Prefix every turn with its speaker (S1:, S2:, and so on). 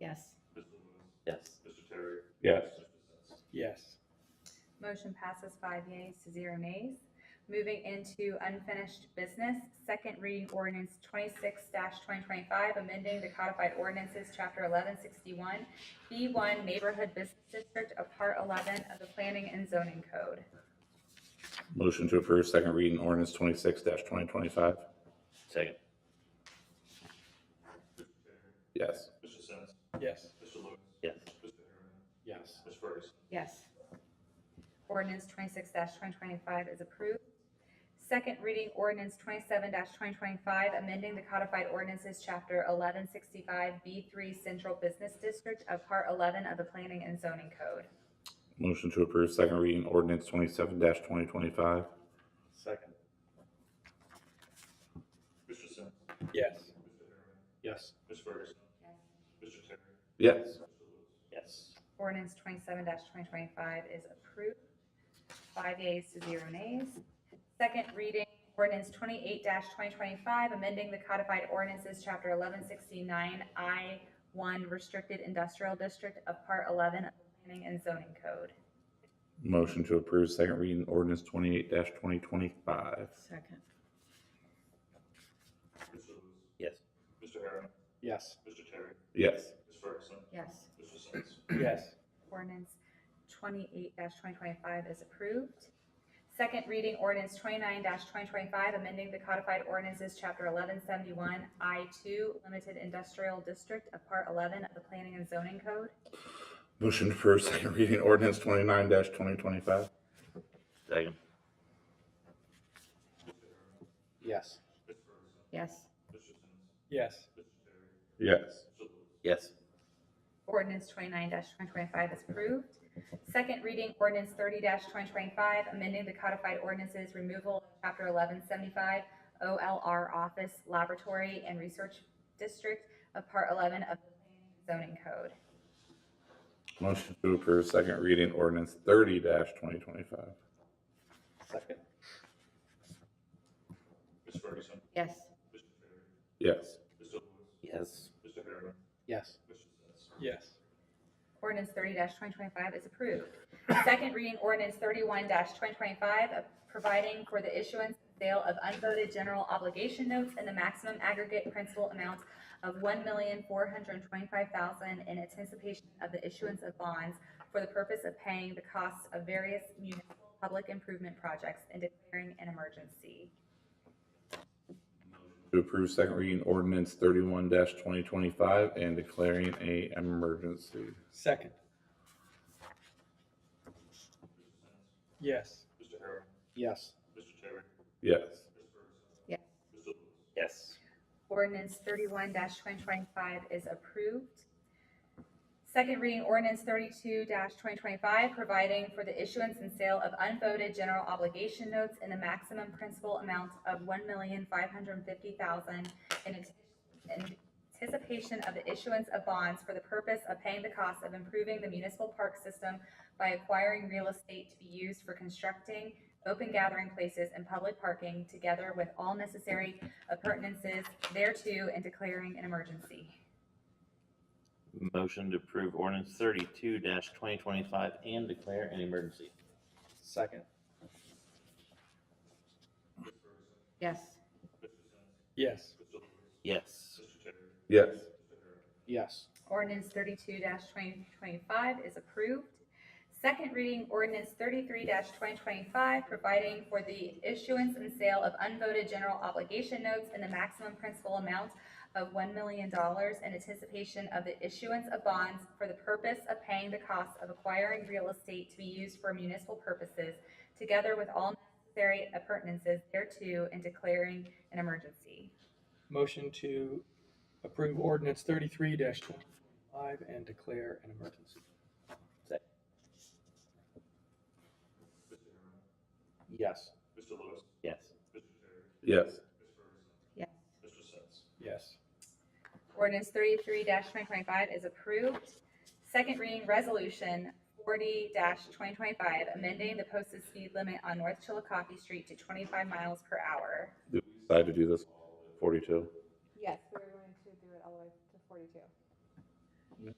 S1: Yes.
S2: Mrs. Lewis,
S3: Yes.
S2: Mr. Terry.
S4: Yes.
S2: Mr. Katsowski.
S4: Yes.
S5: Motion passes five yeas to zero nays. Moving into unfinished business, second reading ordinance twenty-six twenty twenty-five, amending the codified ordinances, chapter eleven sixty-one, B one Neighborhood Business District of Part eleven of the Planning and Zoning Code.
S4: Motion to approve second reading ordinance twenty-six twenty twenty-five.
S3: Second.
S4: Yes.
S2: Mr. Sins.
S6: Yes.
S2: Mr. Lewis.
S3: Yes.
S2: Mr. Herron.
S6: Yes.
S2: Ms. Ferguson.
S1: Yes.
S5: Ordinance twenty-six twenty twenty-five is approved. Second reading ordinance twenty-seven twenty twenty-five, amending the codified ordinances, chapter eleven sixty-five, B three Central Business District of Part eleven of the Planning and Zoning Code.
S4: Motion to approve second reading ordinance twenty-seven twenty twenty-five.
S6: Second.
S2: Mr. Sins.
S6: Yes.
S2: Mr. Herron.
S6: Yes.
S2: Ms. Ferguson. Mr. Terry.
S4: Yes.
S2: Mr. Lewis.
S3: Yes.
S5: Ordinance twenty-seven twenty twenty-five is approved, five yeas to zero nays. Second reading, ordinance twenty-eight twenty twenty-five, amending the codified ordinances, chapter eleven sixty-nine, I one Restricted Industrial District of Part eleven of the Planning and Zoning Code.
S4: Motion to approve second reading ordinance twenty-eight twenty twenty-five.
S1: Second.
S2: Mr. Lewis.
S3: Yes.
S2: Mr. Herron.
S6: Yes.
S2: Mr. Terry.
S4: Yes.
S2: Ms. Ferguson.
S1: Yes.
S2: Mr. Sins.
S6: Yes.
S5: Ordinance twenty-eight twenty twenty-five is approved. Second reading ordinance twenty-nine twenty twenty-five, amending the codified ordinances, chapter eleven seventy-one, I two, limited industrial district of part eleven of the planning and zoning code.
S4: Motion to approve second reading ordinance twenty-nine twenty twenty-five.
S3: Second.
S6: Yes.
S2: Ms. Ferguson.
S1: Yes.
S2: Mr. Sins.
S6: Yes.
S2: Mr. Terry.
S4: Yes.
S2: Mr. Lewis.
S3: Yes.
S5: Ordinance twenty-nine twenty twenty-five is approved. Second reading ordinance thirty twenty twenty-five, amending the codified ordinances, removal of chapter eleven seventy-five, OLR office, laboratory, and research district of part eleven of the planning and zoning code.
S4: Motion to approve second reading ordinance thirty twenty twenty-five.
S6: Second.
S2: Ms. Ferguson.
S1: Yes.
S2: Mr. Terry.
S4: Yes.
S2: Mr. Lewis.
S3: Yes.
S2: Mr. Herron.
S6: Yes.
S2: Mr. Sins.
S6: Yes.
S5: Ordinance thirty twenty twenty-five is approved. Second reading ordinance thirty-one twenty twenty-five, uh, providing for the issuance and sale of unvoted general obligation notes in the maximum aggregate principal amount of one million four hundred and twenty-five thousand in anticipation of the issuance of bonds for the purpose of paying the costs of various municipal public improvement projects and declaring an emergency.
S4: To approve second reading ordinance thirty-one twenty twenty-five and declaring a emergency.
S6: Second. Yes.
S2: Mr. Herron.
S6: Yes.
S2: Mr. Terry.
S4: Yes.
S2: Ms. Ferguson.
S1: Yes.
S2: Mr. Lewis.
S3: Yes.
S5: Ordinance thirty-one twenty twenty-five is approved. Second reading ordinance thirty-two twenty twenty-five, providing for the issuance and sale of unvoted general obligation notes in the maximum principal amount of one million five hundred and fifty thousand in ant- in anticipation of the issuance of bonds for the purpose of paying the cost of improving the municipal park system by acquiring real estate to be used for constructing open gathering places and public parking together with all necessary appurtenances thereto and declaring an emergency.
S3: Motion to approve ordinance thirty-two twenty twenty-five and declare an emergency.
S6: Second.
S2: Ms. Ferguson.
S1: Yes.
S2: Mr. Sins.
S6: Yes.
S2: Mr. Lewis.
S3: Yes.
S2: Mr. Terry.
S4: Yes.
S2: Mr. Herron.
S6: Yes.
S5: Ordinance thirty-two twenty twenty-five is approved. Second reading ordinance thirty-three twenty twenty-five, providing for the issuance and sale of unvoted general obligation notes in the maximum principal amount of one million dollars in anticipation of the issuance of bonds for the purpose of paying the cost of acquiring real estate to be used for municipal purposes, together with all necessary appurtenances thereto and declaring an emergency.
S6: Motion to approve ordinance thirty-three twenty twenty-five and declare an emergency.
S2: Mr. Herron.
S6: Yes.
S2: Mr. Lewis.
S3: Yes.
S2: Mr. Terry.
S4: Yes.
S2: Ms. Ferguson.
S1: Yes.
S2: Mr. Sins.
S6: Yes.
S5: Ordinance thirty-three twenty twenty-five is approved. Second reading resolution forty twenty twenty-five, amending the posted speed limit on North Chillicothe Street to twenty-five miles per hour.
S4: Decide to do this forty-two.
S7: Yes, we're going to do it all the way to forty-two.